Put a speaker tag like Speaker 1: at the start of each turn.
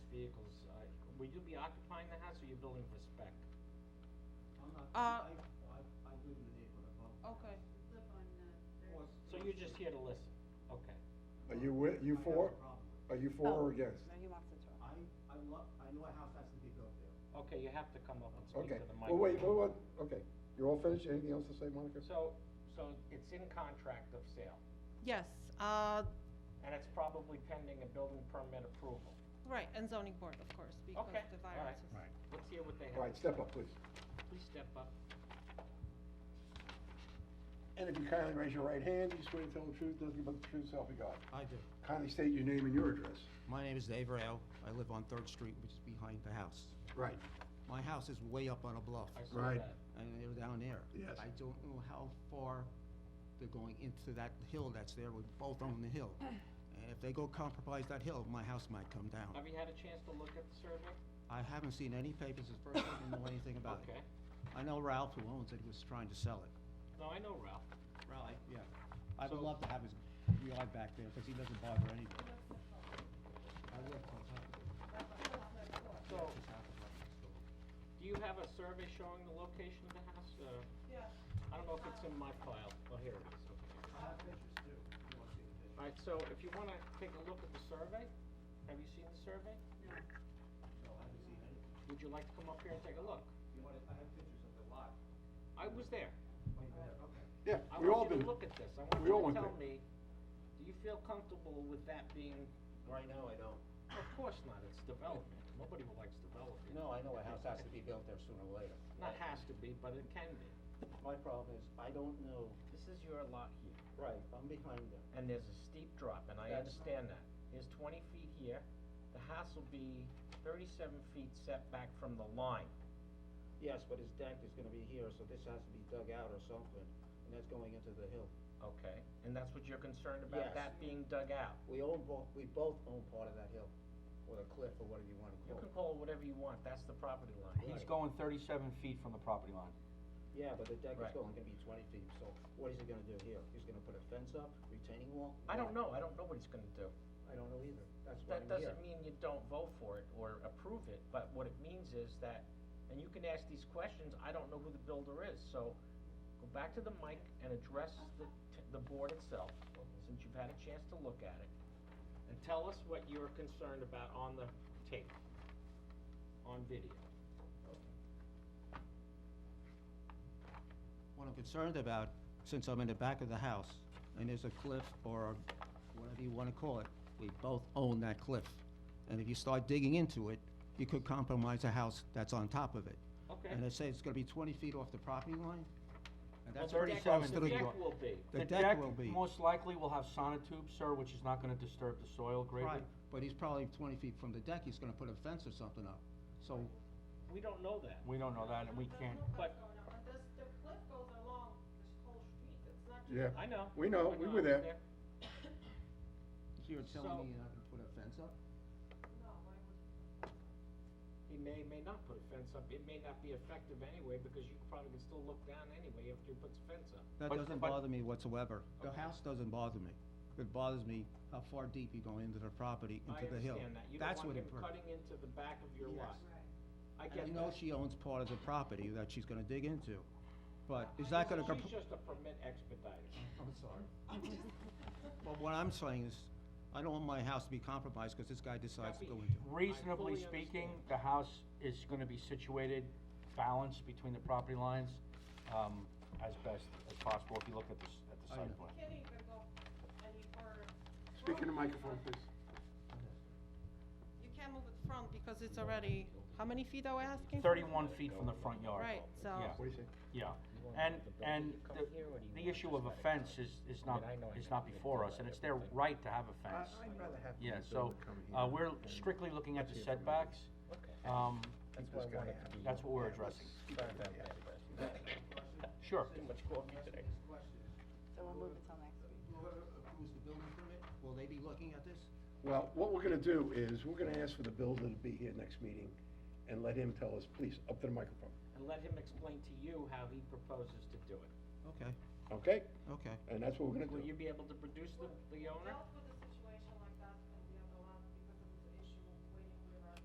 Speaker 1: uh, will you be occupying the house or you're building for spec?
Speaker 2: I'm not,
Speaker 3: Uh,
Speaker 2: I, I, I live in the neighborhood above. the
Speaker 3: Okay.
Speaker 2: house.
Speaker 4: live on, uh,
Speaker 2: Or-
Speaker 1: So you're just here to listen, okay.
Speaker 5: Are you wi- you
Speaker 2: I have a
Speaker 5: for-
Speaker 2: problem with
Speaker 5: Are you for
Speaker 3: Oh,
Speaker 5: or against?
Speaker 3: No, he wants to talk.
Speaker 2: it. I, I love, I know a house has to be built there.
Speaker 1: Okay, you have to come up and speak
Speaker 5: Okay,
Speaker 1: to the microphone.
Speaker 5: well, wait, well, what, okay, you're all finished, anything else to say, Monica?
Speaker 1: So, so it's in contract of sale,
Speaker 3: Yes, uh,
Speaker 1: and it's probably pending a building permit approval.
Speaker 3: right, and zoning board, of course, because
Speaker 1: Okay,
Speaker 3: the
Speaker 1: all
Speaker 3: virus
Speaker 1: right.
Speaker 3: is.
Speaker 6: Right.
Speaker 1: Let's hear what they have.
Speaker 5: All right,
Speaker 1: to
Speaker 5: step
Speaker 1: say.
Speaker 5: up, please.
Speaker 1: Please step up.
Speaker 5: And if you kindly raise your right hand, you swear to tell the truth, nothing but the truth, self you got.
Speaker 6: I do.
Speaker 5: Kindly state your name and your address.
Speaker 6: My name is Dave Rao. I live on Third Street, which is behind the house.
Speaker 5: Right.
Speaker 6: My house is way up on a bluff,
Speaker 1: I saw
Speaker 5: Right.
Speaker 1: that.
Speaker 6: and they're down there.
Speaker 5: Yes.
Speaker 6: I don't know how far they're going into that hill that's there. We both own the hill. And if they go compromise that hill, my house might come down.
Speaker 1: Have you had a chance to look at the survey?
Speaker 6: I haven't seen any papers. It's the first time I know anything about it.
Speaker 1: Okay.
Speaker 6: I know Ralph, who owns it, was trying to sell it.
Speaker 1: No, I know Ralph.
Speaker 6: Ralph? Yeah. I would
Speaker 1: So-
Speaker 6: love to have his yard back there, because he doesn't bother anybody. I live on top of it.
Speaker 1: So, do you have a survey showing the location of the house? Uh,
Speaker 3: Yes.
Speaker 1: I don't know if it's in my file. Well, here it is, okay.
Speaker 2: I have pictures too, if you wanna see the pictures.
Speaker 1: All right, so if you wanna take a look at the survey, have you seen the survey?
Speaker 2: No, I haven't seen any.
Speaker 1: Would you like to come up here and take a look?
Speaker 2: You wanna, I have pictures of the lot.
Speaker 1: I was there.
Speaker 2: Oh, you're there, okay.
Speaker 5: Yeah,
Speaker 1: I
Speaker 5: we all
Speaker 1: want you
Speaker 5: been,
Speaker 1: to look at this. I want
Speaker 5: We all
Speaker 1: you to
Speaker 5: went
Speaker 1: tell
Speaker 5: there.
Speaker 1: me, do you feel comfortable with that being,
Speaker 7: Right now, I don't.
Speaker 1: of course not, it's development. Nobody likes development.
Speaker 7: No, I know a house has to be built there sooner or later.
Speaker 1: Not has to be, but it can be.
Speaker 7: My problem is, I don't know,
Speaker 1: This is your lot here,
Speaker 7: right, I'm behind them.
Speaker 1: and there's a steep drop, and I
Speaker 7: That's-
Speaker 1: understand that. There's twenty feet here. The house will be thirty-seven feet setback from the line.
Speaker 7: Yes, but his deck is gonna be here, so this has to be dug out or something, and that's going into the hill.
Speaker 1: Okay, and that's what you're concerned
Speaker 7: Yes.
Speaker 1: about, that being dug out?
Speaker 7: We own both, we both own part of that hill, or the cliff, or whatever you wanna call
Speaker 1: You can
Speaker 7: it.
Speaker 1: call it whatever you want, that's the property line.
Speaker 7: Right.
Speaker 8: going thirty-seven feet from the property line.
Speaker 7: Yeah, but the deck is
Speaker 1: Right.
Speaker 7: going, gonna be twenty feet, so what is he gonna do here? He's gonna put a fence up, retaining wall?
Speaker 1: I
Speaker 7: What?
Speaker 1: don't know, I don't know what he's gonna do.
Speaker 7: I don't know either, that's why
Speaker 1: That
Speaker 7: I'm here.
Speaker 1: doesn't mean you don't vote for it or approve it, but what it means is that, and you can ask these questions, I don't know who the builder is, so go back to the mic and address the, t- the board itself, since you've had a chance to look at it. And tell us what you're concerned about on the tape, on video.
Speaker 6: What I'm concerned about, since I'm in the back of the house, and there's a cliff or whatever you wanna call it, we both own that cliff. And if you start digging into it, you could compromise a house that's on top of it.
Speaker 1: Okay.
Speaker 6: And they say it's gonna be twenty feet off the property line? And that's
Speaker 1: Well, the
Speaker 6: pretty
Speaker 1: deck-
Speaker 6: close to
Speaker 1: The
Speaker 6: the,
Speaker 1: deck will be.
Speaker 6: the deck will be.
Speaker 8: most likely will have sonotubes, sir, which is not gonna disturb the soil greatly.
Speaker 6: Right, but he's probably twenty feet from the deck, he's gonna put a fence or something up. So,
Speaker 1: We don't know that.
Speaker 8: We don't know that, and we can't,
Speaker 1: But-
Speaker 3: This, the cliff goes along this whole street, it's not
Speaker 5: yeah,
Speaker 1: I know.
Speaker 5: We know,
Speaker 1: I
Speaker 5: we
Speaker 1: I
Speaker 5: were
Speaker 1: was
Speaker 5: there.
Speaker 6: so you're telling
Speaker 1: So-
Speaker 6: me you're not gonna put a fence up?
Speaker 1: He may, may not put a fence up, it may not be effective anyway, because you probably can still look down anyway after he puts a fence up.
Speaker 6: That
Speaker 8: But-
Speaker 6: doesn't
Speaker 8: but-
Speaker 6: bother me whatsoever. The
Speaker 1: Okay.
Speaker 6: house doesn't bother me. It bothers me how far deep you go into the property,
Speaker 1: I
Speaker 6: into the hill.
Speaker 1: understand that, you don't
Speaker 6: That's
Speaker 1: want
Speaker 6: what
Speaker 1: him
Speaker 6: it. bur-
Speaker 1: cutting into the back of your lot. I
Speaker 6: And
Speaker 1: get that.
Speaker 6: I know she owns part of the property that she's gonna dig into, but is that gonna? comp-
Speaker 1: She's just a permit expediter.
Speaker 6: I'm sorry. But what I'm saying is, I don't want my house to be compromised because this guy decides to go
Speaker 1: Happy.
Speaker 6: into. it.
Speaker 8: reasonably
Speaker 1: fully
Speaker 8: speaking,
Speaker 1: understand.
Speaker 8: the house is gonna be situated, balanced between the property lines, um, as best as possible, if you look at this, at the
Speaker 6: I know.
Speaker 8: site plan.
Speaker 3: Can't even go any further.
Speaker 5: speak in the microphone, please.
Speaker 3: You can't move it front because it's already, how many feet are we asking?
Speaker 8: Thirty-one feet from the front yard.
Speaker 3: Right, so-
Speaker 8: Yeah.
Speaker 5: What do you say?
Speaker 8: Yeah,
Speaker 1: You want
Speaker 8: and,
Speaker 1: the building
Speaker 8: and
Speaker 1: to come
Speaker 8: the,
Speaker 1: here, or do you
Speaker 8: the
Speaker 1: want
Speaker 8: issue of a
Speaker 1: just like
Speaker 8: fence
Speaker 1: that?
Speaker 8: is, is
Speaker 1: I
Speaker 8: not,
Speaker 1: mean, I know I
Speaker 8: is
Speaker 1: can
Speaker 8: not
Speaker 1: do
Speaker 8: before
Speaker 1: that,
Speaker 8: us, and it's
Speaker 1: but
Speaker 8: their
Speaker 1: I think-
Speaker 8: right to have a fence.
Speaker 7: I'd rather have.
Speaker 8: Yeah,
Speaker 7: the
Speaker 8: so,
Speaker 7: builder come
Speaker 8: uh,
Speaker 7: here
Speaker 8: we're
Speaker 7: and
Speaker 8: strictly looking at the
Speaker 7: hear from him.
Speaker 8: setbacks,
Speaker 1: Okay.
Speaker 8: um,
Speaker 7: That's
Speaker 1: Keep
Speaker 7: what I
Speaker 1: this guy
Speaker 7: wanted to
Speaker 1: happy.
Speaker 7: be.
Speaker 8: that's what we're addressing.
Speaker 1: Sorry about that, Chris.
Speaker 8: Sure.
Speaker 1: Too much coffee today.
Speaker 2: This question,
Speaker 3: So we'll move it till next week.
Speaker 2: whoever approves the building permit,
Speaker 6: Will they be looking at this?
Speaker 5: Well, what we're gonna do is, we're gonna ask for the builder to be here next meeting and let him tell us, please, up to the microphone,
Speaker 1: And let him explain to you how he proposes to do it.
Speaker 6: Okay,
Speaker 5: okay?
Speaker 6: okay.
Speaker 5: And that's what we're gonna
Speaker 1: Will
Speaker 5: do.
Speaker 1: you be able to produce the, the owner?